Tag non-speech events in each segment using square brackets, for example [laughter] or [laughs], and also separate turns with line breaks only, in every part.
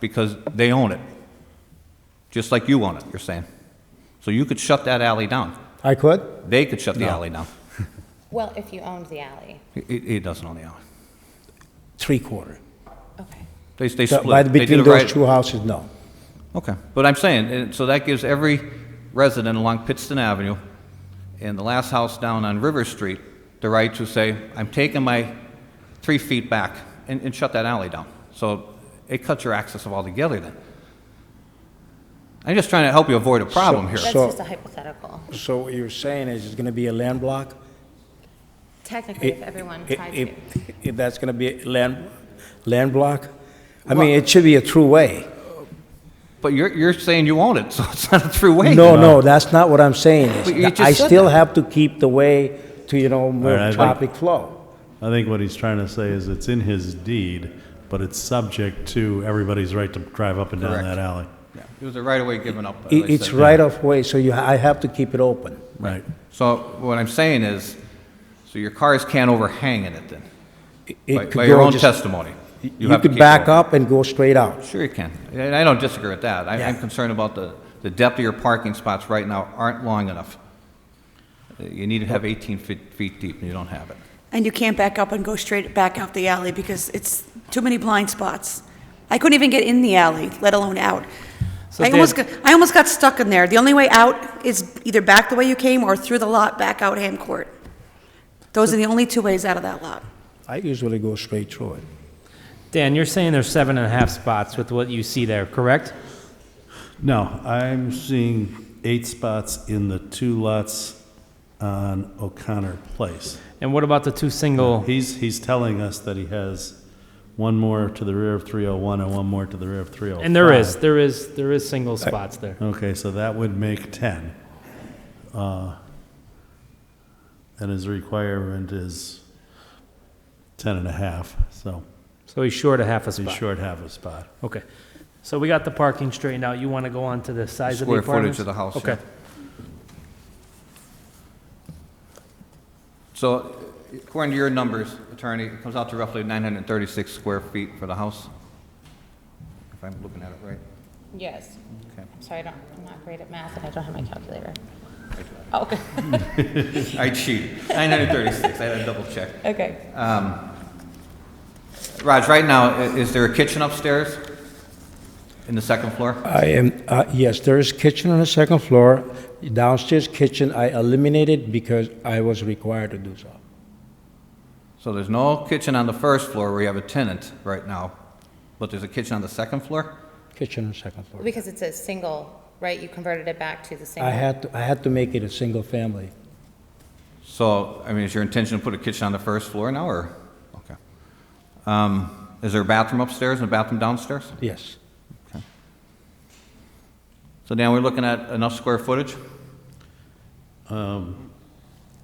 because they own it, just like you own it, you're saying. So you could shut that alley down.
I could?
They could shut the alley down.
Well, if you owned the alley.
He- He, he doesn't own the alley.
Three-quarter.
Okay.
They, they
So,
split.
By,
They did
between
it right-
those two houses, no.
Okay, but I'm saying, and so that gives every resident along Pittston Avenue and the last house down on River Street the right to say, I'm taking my three feet back and, and shut that alley down. So it cuts your access off altogether then. I'm just trying to help you avoid a problem here.
That's
So-
just a hypothetical.
So what you're saying is it's going to be a land block?
Technically, if everyone
If-
tried
if-
to.
If that's going to be a land, land block? I mean, it should be a true way.
But you're, you're saying you own it, [laughs] so it's not a through way.
No, no, that's not what I'm saying. is
But you
that
just
I
said
still
that.
have to keep the way to, you know,
All
more
right, I think-
traffic flow.
I think what he's trying to say is it's in his deed, but it's subject to everybody's right to drive up and down
Correct.
that alley.
Yeah, It was a right of way given up. as
It-
they
It's
said.
right of way, so you, I have to keep it open.
Right.
So what I'm saying is, so your cars can't overhang in it then,
It- it
by,
could
by your
go
own
just-
testimony.
You
have to keep
could
it
back
open.
up and go straight out.
Sure you can. And I don't disagree with that. I- I'm
Yeah.
concerned about the, the depth of your parking spots right now aren't long enough. Uh, You need to have 18 feet, feet deep, and you don't have it.
And you can't back up and go straight back out the alley because it's too many blind spots. I couldn't even get in the alley, let alone out.
So
I almost,
Dan-
got- I almost got stuck in there. The only way out is either back the way you came or through the lot back out Ham Court. Those are the only two ways out of that lot.
I usually go straight through it.
Dan, you're saying there's seven and a half spots with what you see there, correct?
No, I'm seeing eight spots in the two lots on O'Connor Place.
And what about the two single?
He's, he's telling us that he has one more to the rear of 301 and one more to the rear of 305.
And there is, there is, there is single spots there.
Okay, so that would make 10. Uh, And his requirement is 10 and a half, so
So he's short a half a
he's
spot.
short half a spot.
Okay. So we got the parking straightened out. You want to go on to the size of the
Square
apartments?
footage of the house,
Okay.
So according to your numbers, attorney, it comes out to roughly 936 square feet for the house? If I'm looking at it right.
Yes.
Okay.
I'm sorry, I don't, I'm not great at math and I don't have my calculator. Oh, Okay,
I cheated. 936, I had to double check.
[laughs]
Um,
[laughs]
okay.
Raj, right now, i- is there a kitchen upstairs in the second floor?
I am, uh, yes, there is kitchen on the second floor. Downstairs kitchen, I eliminated because I was required to do so.
So there's no kitchen on the first floor where you have a tenant right now, but there's a kitchen on the second floor?
Kitchen on the second floor.
Because it's a single, right? You converted it back to the single.
I had, to I had to make it a single family.
So, I mean, is your intention to put a kitchen on the first floor now, or? Okay. Um, Is there a bathroom upstairs and a bathroom downstairs?
Yes,
So now we're looking at enough square footage?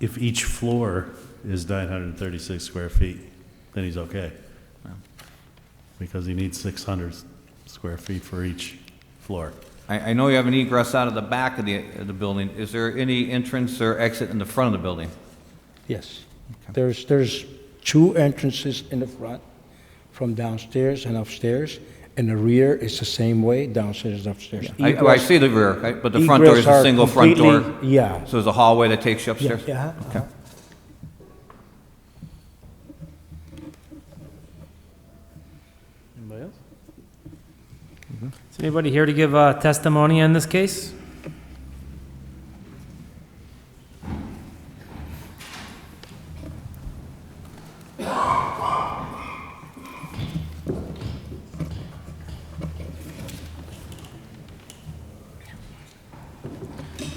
If each floor is 936 square feet, then he's okay. Because he needs 600 square feet for each floor.
I, I know you have an egress out of the back of the, of the building. Is there any entrance or exit in the front of the building?
yes. There's, there's two entrances in the front, from downstairs and upstairs, and the rear is the same way, downstairs and upstairs.
I, oh, I
Egress-
see the rear, I- but the front door is
egress
a
are
single front door?
completely- Yeah.
So there's a hallway that takes you
Yeah,
upstairs?
yeah.
Okay.
Anybody else? Is anybody here to give uh, testimony on this case?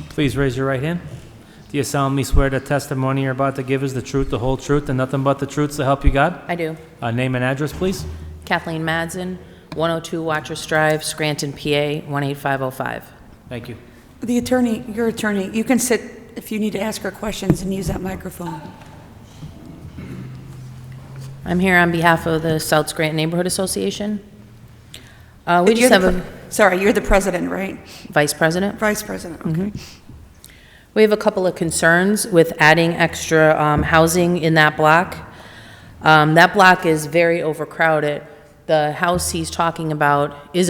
Please raise your right hand. Do you solemnly swear the testimony you're about to give is the truth, the whole truth, and nothing but the truth to help you God?
I do.
Uh, Name and address, please.
Kathleen Madsen, 102 Watchers Drive, Scranton, PA, 18505.
Thank you.
The attorney, your attorney, you can sit if you need to ask her questions and use that microphone.
I'm here on behalf of the South Scranton Neighborhood Association. Uh, We
You're
just have
the
a
pre- Sorry, you're the president, right?
vice president.
Vice president,
Mm-hmm.
okay.
We have a couple of concerns with adding extra um, housing in that block. Um, That block is very overcrowded. The house he's talking about is a